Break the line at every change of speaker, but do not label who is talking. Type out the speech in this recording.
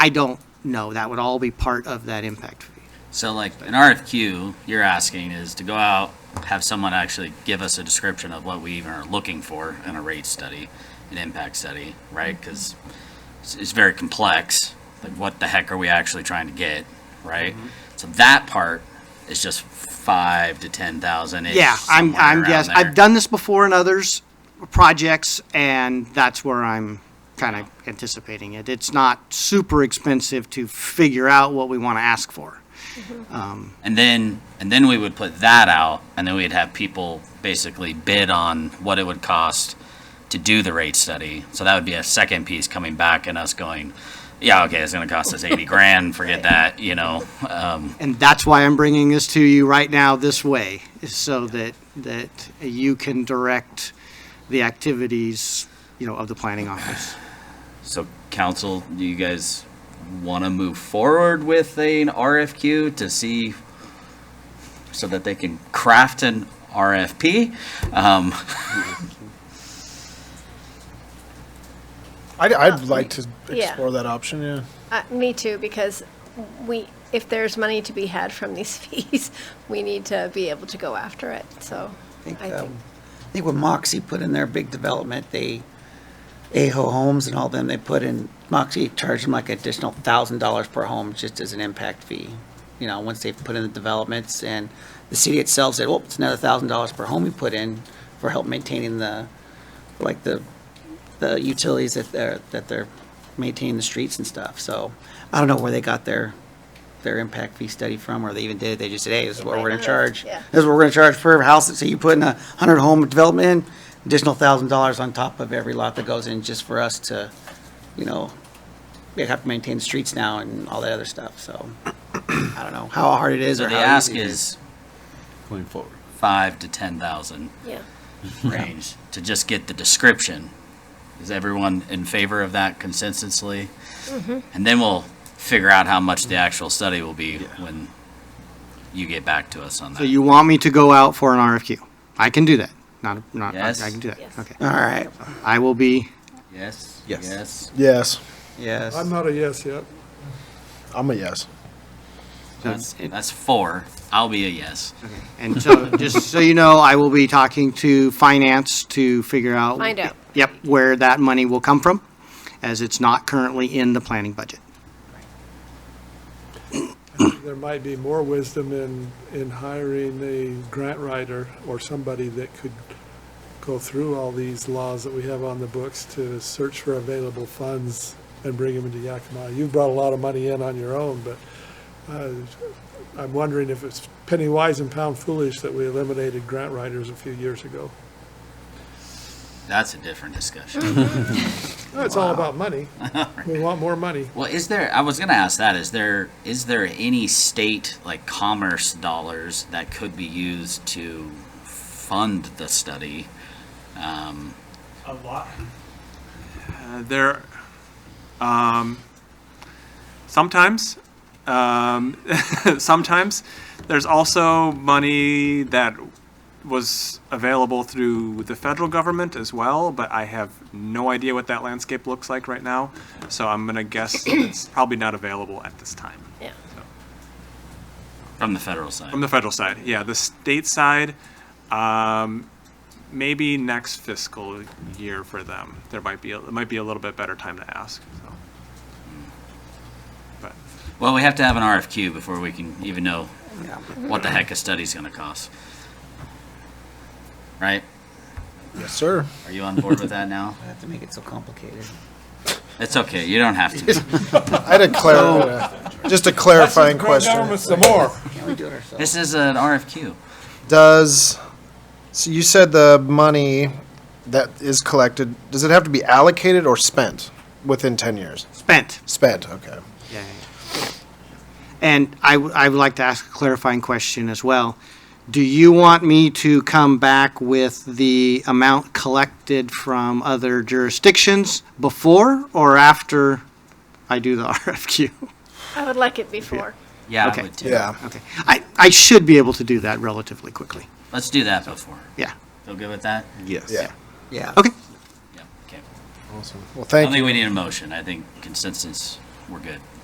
I don't know. That would all be part of that impact fee.
So like an RFQ, you're asking is to go out, have someone actually give us a description of what we even are looking for in a rate study, an impact study, right?
Mm-hmm.
Because it's, it's very complex. Like what the heck are we actually trying to get, right?
Mm-hmm.
So that part is just five to ten thousand.
Yeah, I'm, I'm guess, I've done this before in others projects and that's where I'm kind of anticipating it. It's not super expensive to figure out what we want to ask for.
And then, and then we would put that out, and then we'd have people basically bid on what it would cost to do the rate study. So that would be a second piece coming back and us going, yeah, okay, it's gonna cost us eighty grand, forget that, you know? Um,
And that's why I'm bringing this to you right now this way, is so that, that you can direct the activities, you know, of the planning office.
so council, do you guys wanna move forward with an RFQ to see, so that they can craft an RFP? Um,
I'd, I'd like to
yeah.
explore that option, yeah.
Uh, me too, because we, if there's money to be had from these fees, we need to be able to go after it, so.
I think,
I think-
um, I think when Moxie put in their big development, they, Aho Homes and all them, they put in, Moxie charged them like additional thousand dollars per home just as an impact fee. You know, once they put in the developments and the city itself said, well, it's another thousand dollars per home we put in for help maintaining the, like the, the utilities that they're, that they're maintaining the streets and stuff. So I don't know where they got their, their impact fee study from, or they even did. it. They just said, hey, this is what we're gonna charge.
Yeah.
This is what we're gonna charge per house. So you put in a hundred home development, in, additional thousand dollars on top of every lot that goes in just for us to, you know, we have to maintain the streets now and all that other stuff, so. I don't know how hard it is
so
or
the
how
ask
easy it
is
going forward.
five to ten thousand.
Yeah.
range to just get the description. Is everyone in favor of that consensually? And then we'll figure out how much the actual study will be when you get back to us on
So
that.
you want me to go out for an RFQ? I can do that. Not, not, I I
Yes.
can do that.
Yes.
Okay.
All right,
I will be,
Yes?
Yes.
Yes,
yes.
I'm not a yes yet.
I'm a yes.
That's, that's four. I'll be a yes.
And so, just so you know, I will be talking to finance to figure out.
Find out.
Yep, where that money will come from, as it's not currently in the planning budget.
There might be more wisdom in, in hiring a grant writer or somebody that could go through all these laws that we have on the books to search for available funds and bring them into Yakima. You've brought a lot of money in on your own, but uh, I'm wondering if it's penny wise and pound foolish that we eliminated grant writers a few years ago.
That's a different discussion.
It's all about money. We want more money.
Well, is there, I was gonna ask that, is there, is there any state like commerce dollars that could be used to fund the study? Um,
A lot. Uh, there, um, sometimes, um, sometimes there's also money that was available through the federal government as well, but I have no idea what that landscape looks like right now. So I'm gonna guess that it's probably not available at this time.
Yeah.
from the federal side?
From the federal side, yeah. The state side, um, maybe next fiscal year for them. There might be, a- it might be a little bit better time to ask, so. But,
Well, we have to have an RFQ before we can even know what the heck a study's gonna cost. Right?
Yes, sir.
Are you on board with that now?
I have to make it so complicated.
It's okay, you don't have to.
I had a clar- just a clarifying question.
Government's the more.
Can't we do it ourselves?
This is an RFQ.
Does, so you said the money that is collected, does it have to be allocated or spent within 10 years?
Spent.
Spent, okay.
Yeah, yeah. And I, w- I would like to ask a clarifying question as well. Do you want me to come back with the amount collected from other jurisdictions before or after I do the RFQ?
I would like it before.
Yeah, I
Okay.
would too.
Yeah.
Okay, I, I should be able to do that relatively quickly.
Let's do that before.
Yeah,
Feel good with that?
Yes.
Yeah.
Yeah.
okay.
Yeah, okay.
Awesome. Well,
I don't
thank you.
think we need a motion, I think consensus we're good.